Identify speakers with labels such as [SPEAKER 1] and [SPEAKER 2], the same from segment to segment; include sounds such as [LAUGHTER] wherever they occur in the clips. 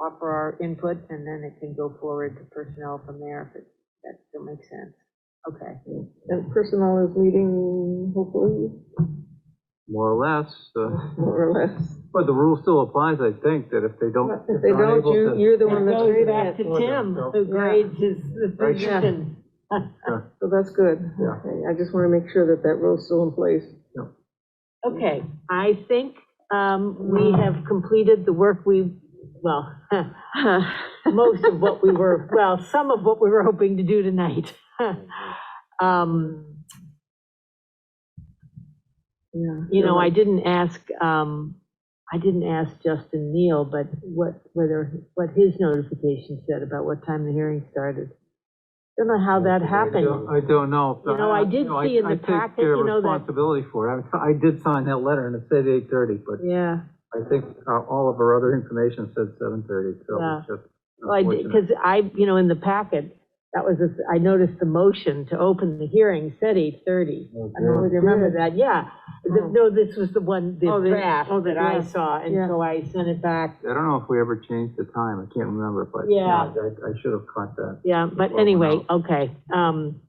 [SPEAKER 1] offer our input, and then it can go forward to personnel from there, if it, that still makes sense. Okay,
[SPEAKER 2] And personnel is meeting hopefully,
[SPEAKER 3] more or less. uh,
[SPEAKER 2] more or less.
[SPEAKER 3] But the rule still applies, I think, that if they don't.
[SPEAKER 2] But If they don't,
[SPEAKER 3] unable
[SPEAKER 2] you,
[SPEAKER 3] to-
[SPEAKER 2] you're the one
[SPEAKER 4] It
[SPEAKER 2] that's
[SPEAKER 4] goes
[SPEAKER 2] reading
[SPEAKER 4] back
[SPEAKER 2] it,
[SPEAKER 4] to Tim, who
[SPEAKER 2] Yeah.
[SPEAKER 4] grades his the
[SPEAKER 3] Right.
[SPEAKER 4] position.
[SPEAKER 2] so that's good.
[SPEAKER 3] Yeah.
[SPEAKER 2] Okay, I just want to make sure that that rule's still in place.
[SPEAKER 4] Okay, I think um, we have completed the work we, well, [LAUGHS] most of what we were, well, some of what we were hoping to do tonight. [LAUGHS] Um,
[SPEAKER 2] Yeah.
[SPEAKER 4] You know, I didn't ask, um, I didn't ask Justin Neal, but what, whether, what his notification said about what time the hearing started. Don't know how that happened.
[SPEAKER 3] I don't know.
[SPEAKER 4] You know, I did
[SPEAKER 3] No,
[SPEAKER 4] see in
[SPEAKER 3] I
[SPEAKER 4] the
[SPEAKER 3] take
[SPEAKER 4] packet,
[SPEAKER 3] their
[SPEAKER 4] you know, that-
[SPEAKER 3] Responsibility for it. I I did sign that letter and it said eight thirty, but
[SPEAKER 4] Yeah,
[SPEAKER 3] I think uh, all of our other information said seven thirty, so
[SPEAKER 4] Yeah.
[SPEAKER 3] it's just.
[SPEAKER 4] well, I did,
[SPEAKER 3] unfortunate.
[SPEAKER 4] because I, you know, in the packet, that was, the- I noticed the motion to open the hearing said 8:30.
[SPEAKER 3] Oh,
[SPEAKER 4] I don't know if you remember that, yeah. The-
[SPEAKER 2] Oh.
[SPEAKER 4] No, this was the one, the
[SPEAKER 2] Oh, the-
[SPEAKER 4] draft
[SPEAKER 2] oh, the
[SPEAKER 4] that I
[SPEAKER 2] draft.
[SPEAKER 4] saw, and
[SPEAKER 2] Yeah.
[SPEAKER 4] so I sent it back.
[SPEAKER 3] I don't know if we ever changed the time. I can't remember, but.
[SPEAKER 4] Yeah.
[SPEAKER 3] I, I should have caught that.
[SPEAKER 4] Yeah, but
[SPEAKER 3] Well,
[SPEAKER 4] anyway,
[SPEAKER 3] well.
[SPEAKER 4] okay. um,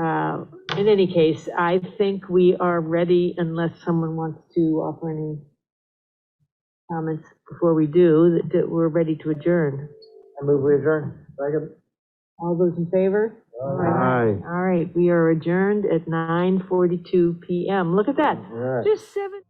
[SPEAKER 4] uh, In any case, I think we are ready unless someone wants to offer any comments before we do, that- that we're ready to adjourn.
[SPEAKER 3] I move we adjourn. Second.
[SPEAKER 4] All those in favor?
[SPEAKER 3] Aye.
[SPEAKER 4] All right, we are adjourned at 9:42 PM. Look at that, just seven.